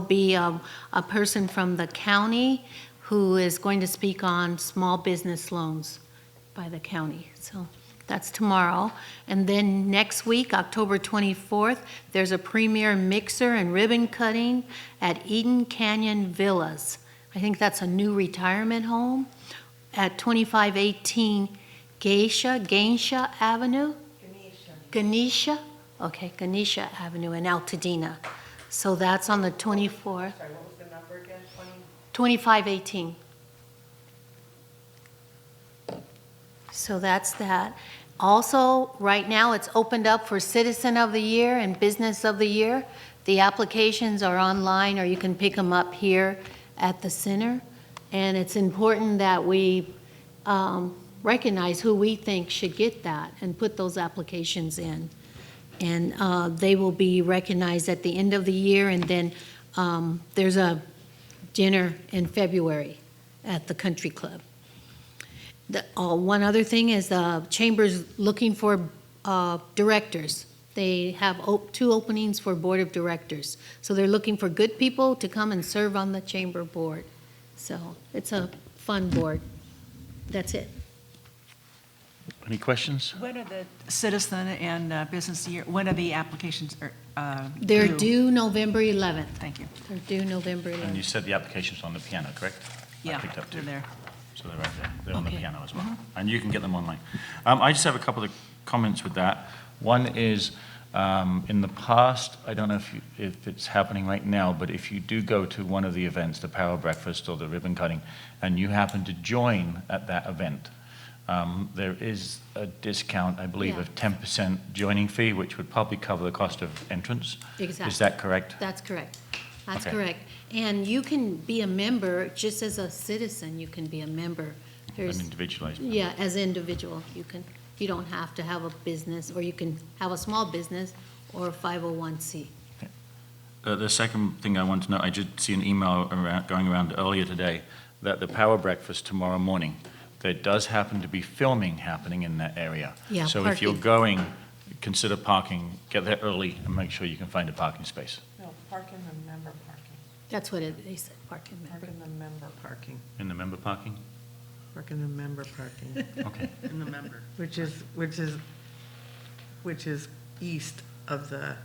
be a, a person from the county who is going to speak on small business loans by the county. So that's tomorrow. And then next week, October 24th, there's a premier mixer and ribbon cutting at Eden Canyon Villas. I think that's a new retirement home at 2518 Geisha, Geisha Avenue? Ganesha, okay, Ganesha Avenue in Altadena. So that's on the 24th, Sorry, what was the number again? Twenty? 2518. So that's that. Also, right now, it's opened up for Citizen of the Year and Business of the Year. The applications are online, or you can pick them up here at the center. And it's important that we um, recognize who we think should get that and put those applications in. And uh, they will be recognized at the end of the year, and then um, there's a dinner in February at the Country Club. The, oh, one other thing is the chamber's looking for uh, directors. They have op- two openings for board of directors. So they're looking for good people to come and serve on the chamber board. So it's a fun board. That's it. Any questions? When are the citizen and uh, business year, when are the applications er, uh, They're due November 11th. Thank you. They're due November And you 11th. said the application's on the piano, correct? I Yeah, picked up they're two. there. So they're right there, they're on the Okay. Mm-hmm. piano as well. And you can get them online. Um, I just have a couple of comments with that. One is, um, in the past, I don't know if, you- if it's happening right now, but if you do go to one of the events, the Power Breakfast or the ribbon cutting, and you happen to join at that event, um, there is a discount, I believe, Yeah. of 10% joining fee, which would probably cover the cost of entrance. Is Exactly. that correct? That's correct. That's Okay. correct. And you can be a member, just as a citizen, you can be a member. An There's individualized. Yeah, as individual, you can, you don't have to have a business, or you can have a small business or oh a 501c. Uh, The second thing I want to know, I did see an email around, going around earlier today, that the power breakfast tomorrow morning, there does happen to be filming happening in that area. Yeah, So if you're parking. going, consider parking, get there early and make sure you can find a parking space No, park in the member parking. That's what it, they said, parking Park member. in the member parking. in the member parking. Park in the member parking, Okay. In the member. which is, which is, which is east of the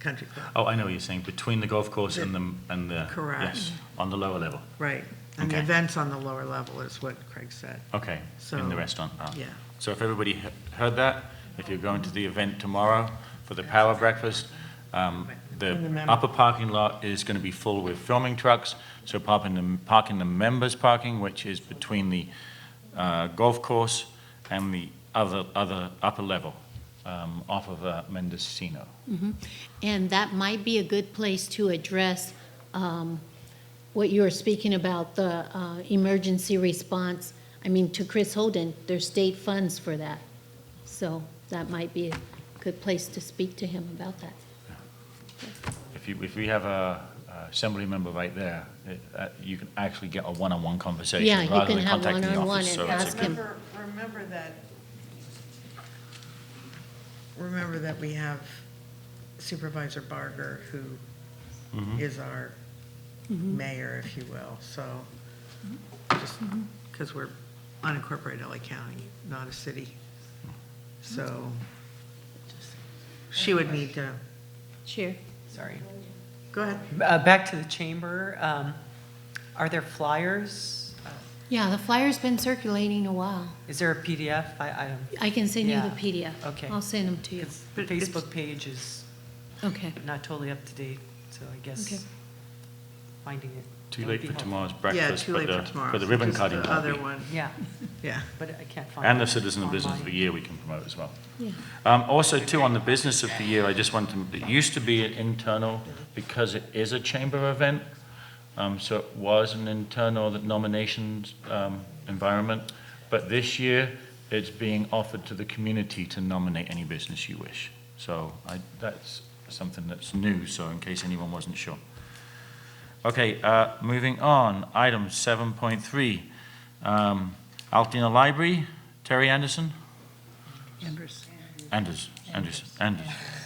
country club, Oh, I know what you're saying, between the golf course and the, and the. Correct. Yes, on the lower level. right? And the Okay. events on the lower level is what Craig said, Okay, in So- the restaurant. Ah. yeah. So if everybody he- heard that, if you're going to the event tomorrow for the power breakfast, um, In the the mem- upper parking lot is going to be full with filming trucks. So park in the, park in the members' parking, which is between the uh, golf course and the other, other upper level um, off of uh, Mendocino. Mm-hmm. And that might be a good place to address um, what you were speaking about, the uh, emergency response. I mean, to Chris Holden, there's state funds for that. So that might be a good place to speak to him about that. If you, if we have a a assembly member right there, it- uh, you can actually get a one-on-one conversation. Yeah, you rather can than have contacting the one-on-one and office. So it's a ask good- him. Remember, remember that, remember that we have Supervisor Barger, who Mm-hmm. is our Mm-hmm. mayor, if you will, so, just, Mm-hmm. because we're unincorporated LA County, not a city, so, she would need to, Sure. Sorry. go ahead. Uh, Back to the chamber, um, are there flyers? Uh, Yeah, the flyer's been circulating a while. Is there a PDF? I, I don't, I can send you the Yeah, PDF. okay. I'll send them to you. because the But it's- Facebook page is Okay. not totally up to date, so I Okay. guess finding it. Too would late be for helpful. tomorrow's Yeah, breakfast, too but late for the, tomorrow. but the ribbon Just cutting The will other be. one, Yeah, yeah. but I can't find. And the it Citizen of Business of the online. Year we can promote as well. Yeah. Um, also too, on the Business of the Year, I just wanted to, it used to be an internal, because it is a chamber event, um, so it was an internal nominations, um, environment. But this year, it's being offered to the community to nominate any business you wish. So I, that's something that's new, so in case anyone wasn't sure. Okay, uh, moving on, item seven point three. Um, Altoona Library, Terry Anderson? Anders. Anders, Anders, Anders.